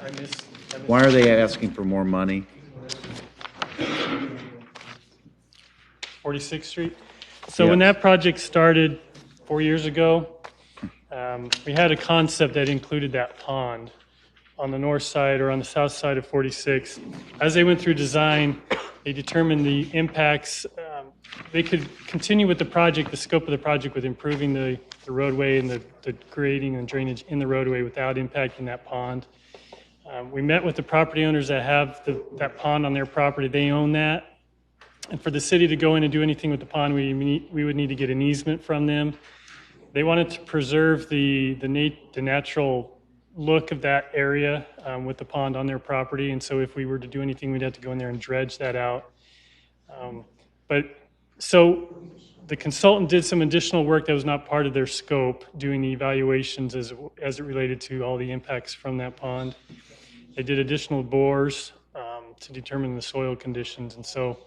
I missed, I missed. Why are they asking for more money? 46th Street. So when Yeah. that project started four years ago, um, we had a concept that included that pond on the north side or on the south side of 46. As they went through design, they determined the impacts. um, They could continue with the project, the scope of the project with improving the the roadway and the the grading and drainage in the roadway without impacting that pond. Um, We met with the property owners that have the- that pond on their property. They own that. And for the city to go in and do anything with the pond, we, need- we would need to get an easement from them. They wanted to preserve the, the nat, the natural look of that area um, with the pond on their property. And so if we were to do anything, we'd have to go in there and dredge that out. Um, But, so the consultant did some additional work that was not part of their scope, doing the evaluations as, as it related to all the impacts from that pond. They did additional bores um, to determine the soil conditions. And so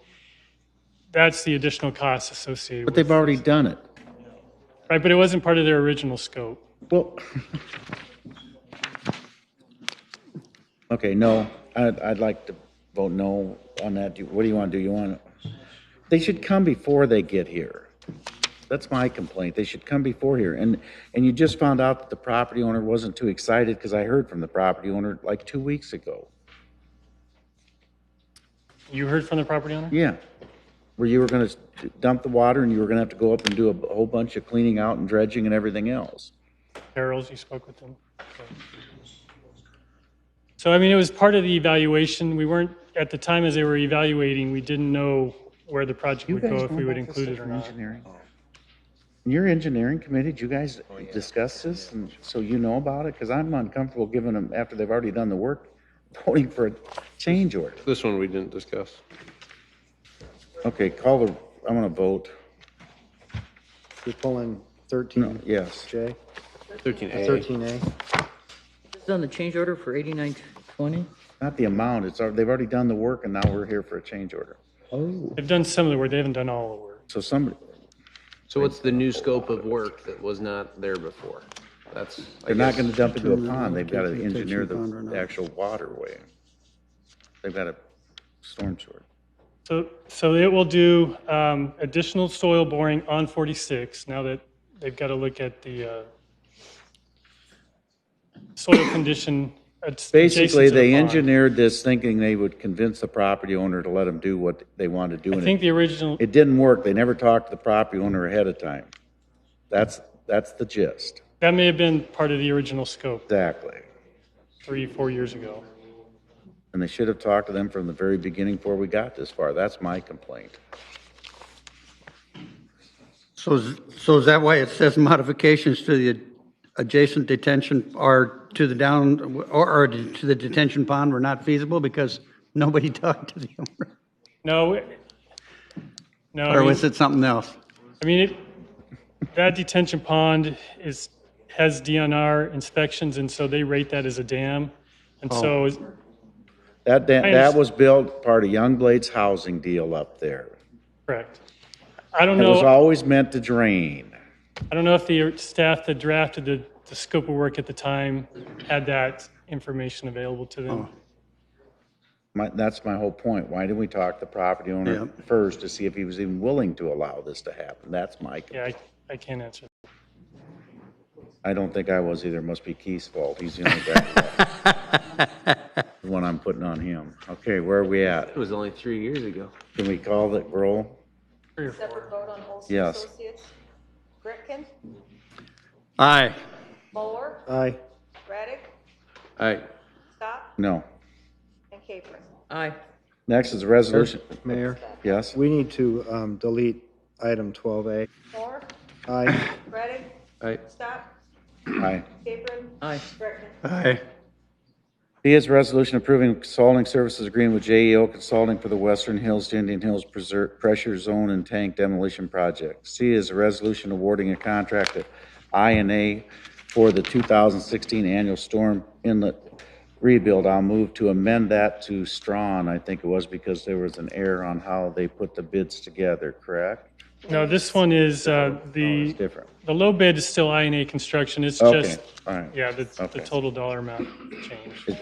that's the additional cost associated with But it. they've already done it. Right, but it wasn't part of their original scope. Well, okay, no, I'd, I'd like to vote no on that. Do- What do you want to do? You want, they should come before they get here. That's my complaint. They should come before here. And, and you just found out that the property owner wasn't too excited because I heard from the property owner like two weeks ago. You heard from the property owner? Yeah, where you were going to dump the water and you were going to have to go up and do a b- whole bunch of cleaning out and dredging and everything else. Carol's, you spoke with them? Okay. So, I mean, it was part of the evaluation. We weren't, at the time as they were evaluating, we didn't know where the project would go, if we would include it or not. Engineering. Your engineering committee, did you guys discuss this? And so you know about it? Because I'm uncomfortable giving them, after they've already done the work, voting for a change order. This one we didn't discuss. Okay, call the, I'm going to vote. You're pulling No, 13J, yes. 13A. 13A? It's on the change order for 8920? Not the amount, it's, al- they've already done the work and now we're here for a change order. Oh. They've done some of the work, they haven't done all the work. So somebody, So what's the new scope of work that was not there before? That's, I They're not guess, gonna dump into a Determine pond, they've gotta location, engineer the, pond or not. the actual waterway. They've got a storm sewer. So, so it will do um, additional soil boring on 46, now that they've got to look at the uh, soil condition. adjacent to Basically, the they pond. engineered this thinking they would convince the property owner to let them do what they want to do. I and think it- the original, It didn't work, they never talked to the property owner ahead of time. That's, that's the gist, that may have been part of the original scope exactly. three, four years ago. And they should have talked to them from the very beginning before we got this far, that's my complaint. So, is- so is that why it says modifications to the adjacent detention or to the down, or, or to the detention pond were not feasible because nobody talked to the owner? No, it- no, I Or mean, was it something else? I mean, it- that detention pond is, has DNR inspections, and so they rate that as a dam. And Oh. so is- That, that, I that underst- was built part of Youngblade's housing deal up there. Correct. I don't It was know, always meant to drain. I don't know if the staff that drafted the, the scope of work at the time had that information available to Oh. them. My, that's my whole point. Why didn't we talk to the property owner Yeah. first to see if he was even willing to allow this to happen? That's my, Yeah, I, I can't answer. I don't think I was either. Must be Keith's fault. He's the only guy. left. The one I'm putting on him. Okay, where are we at? it was only three years ago. Can we call the roll? Separate vote on Olson Yes. Associates. Gretkin, Aye. Moeller, Aye. Raddick, I, Stop, No. and Capron. Aye. Next is a resolution. Mayor, Yes? we need to um, delete item 12A. Moore, Aye. Raddick, I, Stop, Aye. Capron, Aye. Gretkin. Aye. B is resolution approving consulting services agreement with JEO Consulting for the Western Hills to Indian Hills Preser- Pressure Zone and Tank Demolition Project. C is a resolution awarding a contract to INA for the 2016 annual storm inlet rebuild. I'll move to amend that to Strawn, I think it was, because there was an error on how they put the bids together, correct? No, this one is, uh, the, It's different. the low bid is still INA construction. It's Oh, Okay, just, all right. yeah, the, the Okay. total dollar amount changed. It-